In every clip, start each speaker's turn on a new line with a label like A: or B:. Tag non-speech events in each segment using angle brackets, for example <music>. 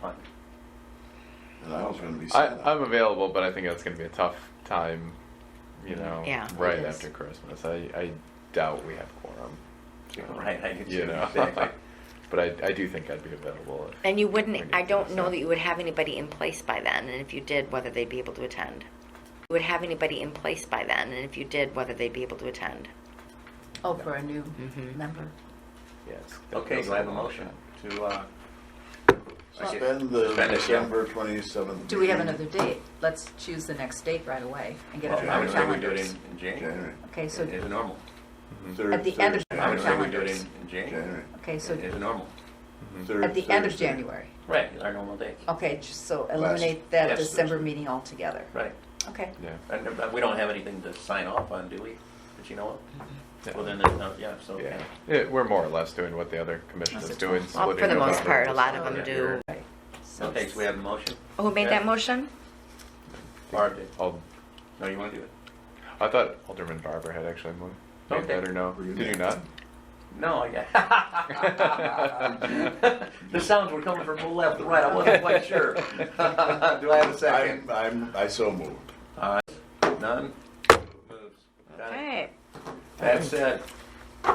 A: fine.
B: And I was gonna be
C: I,
B: sad.
C: I'm available, but I think that's going to be a tough time, you
A: Mm.
C: know,
D: Yeah,
C: right
D: it is.
C: after Christmas. I, I doubt we have quorum,
A: Right, I do
C: you
A: too, <laughs>
C: know.
A: exactly.
C: <laughs> but I, I do think I'd be available. if-
D: And you
C: if we
D: wouldn't, I
C: could
D: don't know
C: decide.
D: that you would have anybody in place by then, and if you did, whether they'd be able to attend. You would have anybody in place by then, and if you did, whether they'd be able to attend.
E: Oh, for a new
D: Mhm.
E: member.
C: Yeah, it's- that
A: Okay,
C: feels
A: do I
C: like
A: have a
C: long
A: motion
C: shot.
A: to, uh, I guess-
B: Suspend the
A: suspend it, yeah.
B: December twenty-seventh.
E: Do we have another date? Let's choose the next date right away and get it on
A: Well, I
E: our
A: would say we do it
E: calendars.
A: in, in January.
B: January.
E: Okay, so,
A: As normal.
C: Mm-hmm.
B: Third-
E: At the end of
B: third
A: I would say we
B: January.
A: do it in,
E: Calendars.
A: in January.
B: January.
E: okay, so
A: As normal.
C: Mm-hmm.
B: Third-
E: at the end of
B: Thursday.
E: January.
A: Right, our normal date.
E: Okay, j- so
B: Last-
E: eliminate that
A: Yes.
E: December meeting altogether.
A: Right.
E: Okay.
C: Yeah.
A: And uh, we don't have anything to sign off on, do we? But you know
C: Yeah.
A: what? Well, then, there's no- yeah, so.
C: Yeah. Yeah, we're more or less doing what the other commission
E: That's
C: is
E: a
C: doing.
E: tough-
D: Well, for
C: splitting
D: the most
C: November,
D: part, a lot of
A: December.
D: them do.
E: Right. So
A: Okay, so we have a motion.
D: Who made that motion?
A: Barb did.
C: I'll-
A: No, you want to do it?
C: I thought Alderman Barber had actually moved. Made
A: Okay.
C: that or no?
B: Were you
C: Did you
B: there?
C: not?
A: No, I
C: <laughs>
A: got. <laughs> The sounds were coming from the left and right, I wasn't quite sure. <laughs> Do I have a second?
B: I'm, I'm, I so moved.
A: None? That said,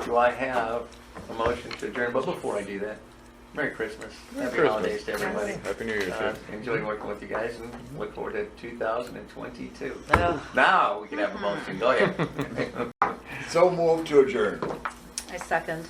A: do I have a motion to adjourn? But before I do that, Merry Christmas,
C: Merry
A: happy
C: Christmas.
A: holidays to everybody.
C: Happy New Year's.
A: Uh,
C: sir.
A: Enjoy working with you guys and look forward to 2022.
C: <laughs>
A: Now, we can have a motion, go ahead.
B: So moved to adjourn.
E: I second.